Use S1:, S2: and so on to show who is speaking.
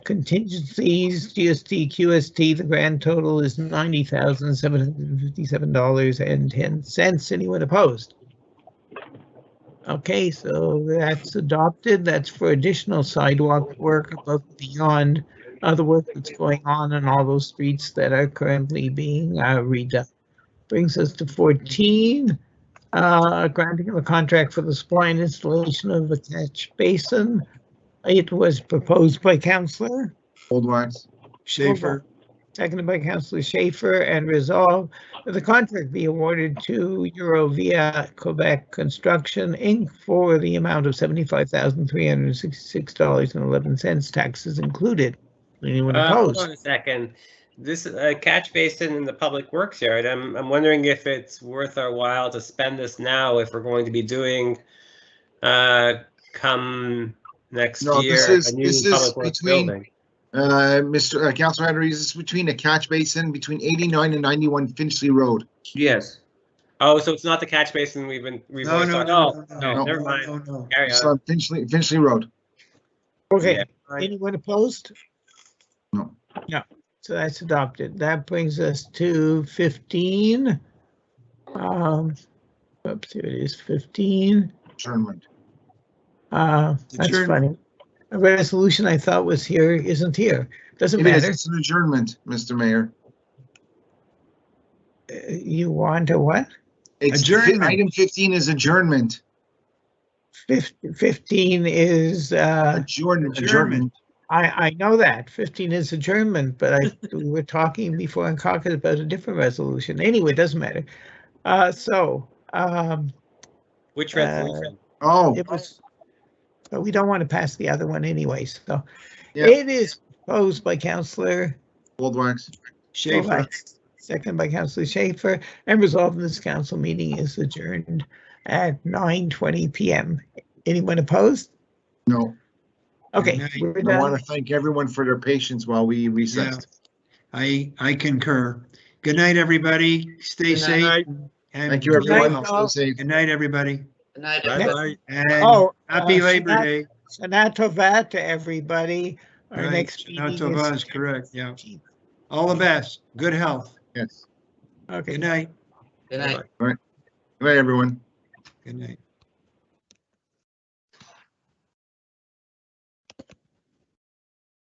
S1: Contingencies, GST, QST, the grand total is ninety thousand seven hundred and fifty-seven dollars and ten cents. Anyone opposed? Okay, so that's adopted. That's for additional sidewalk work above and beyond uh, the work that's going on in all those streets that are currently being uh, redone. Brings us to fourteen, uh, granting of a contract for the supply and installation of a catch basin. It was proposed by Counselor.
S2: Goldwise.
S3: Schaefer,
S1: Seconded by Councillor Schaefer and resolve that the contract be awarded to Eurovia Quebec Construction Inc. for the amount of seventy-five thousand three hundred and sixty-six dollars and eleven cents, taxes included. Anyone
S4: Uh, Hold
S1: opposed?
S4: on a second. This uh, catch basin in the public works yard, I'm, I'm wondering if it's worth our while to spend this now if we're going to be doing uh, come next
S2: No,
S4: year,
S2: this is-
S4: a new
S2: this is
S4: public works
S2: between-
S4: building.
S2: Uh, Mr. uh, Councilor Henry, is this between a catch basin between 89 and 91 Finchley Road?
S3: yes.
S4: Oh, so it's not the catch basin we've been, we've
S3: No,
S4: always
S3: no,
S4: talked
S3: no,
S4: about?
S3: no,
S4: No,
S3: no,
S4: never
S3: no,
S4: mind.
S3: no, no.
S4: Carry
S2: It's
S4: on.
S2: on Finchley, Finchley Road.
S1: Okay,
S4: Yeah.
S1: anyone opposed?
S2: No.
S1: No, so that's adopted. That brings us to fifteen. Um, oops, here it is, fifteen.
S2: Adjournment. Ah,
S1: Uh, that's
S3: Adjourn-
S1: funny. A resolution I thought was here isn't here. Doesn't
S2: It is,
S1: matter.
S2: it's an adjournment, Mr. Mayor.
S1: Uh, You want to what?
S2: It's-
S3: Adjournment.
S2: Item 15 is adjournment.
S1: Fif- Fifteen is, uh,
S2: Adjourn- Adjournment.
S3: Adjournment.
S1: I, I know that. Fifteen is adjournment, but I, we were talking before in caucus about a different resolution. Anyway, it doesn't matter. Uh, so, um,
S4: Which
S1: Uh,
S4: resolution?
S2: Oh,
S1: it was, but we don't want to pass the other one anyway, so.
S2: Yeah.
S1: It is proposed by Counselor
S2: Goldwax.
S3: Schaefer,
S1: Kovacs, Second by Councillor Schaefer, and resolved this council meeting is adjourned at nine twenty PM. Anyone opposed?
S2: No,
S1: Okay,
S3: Good night.
S1: we're
S2: I want
S1: done.
S2: to thank everyone for their patience while we
S3: yeah.
S2: recessed.
S3: I, I concur. Good night, everybody. Stay safe. and
S2: Thank you,
S3: be well.
S2: everyone.
S1: Night,
S2: Stay
S1: all.
S2: safe.
S3: Good night, everybody.
S5: Good night,
S1: Bye-bye.
S5: everyone.
S3: And
S1: Oh,
S3: happy
S1: uh,
S3: Labor
S1: Shabbat-
S3: Day.
S1: Shana Tova to everybody. Our
S3: Right.
S1: next
S3: Shana
S1: meeting
S3: Tova is
S1: is.
S3: correct, yeah. All the best. Good health.
S2: Yes.
S1: Okay.
S3: Good night.
S5: Good night.
S2: Good night, everyone.
S3: Good night.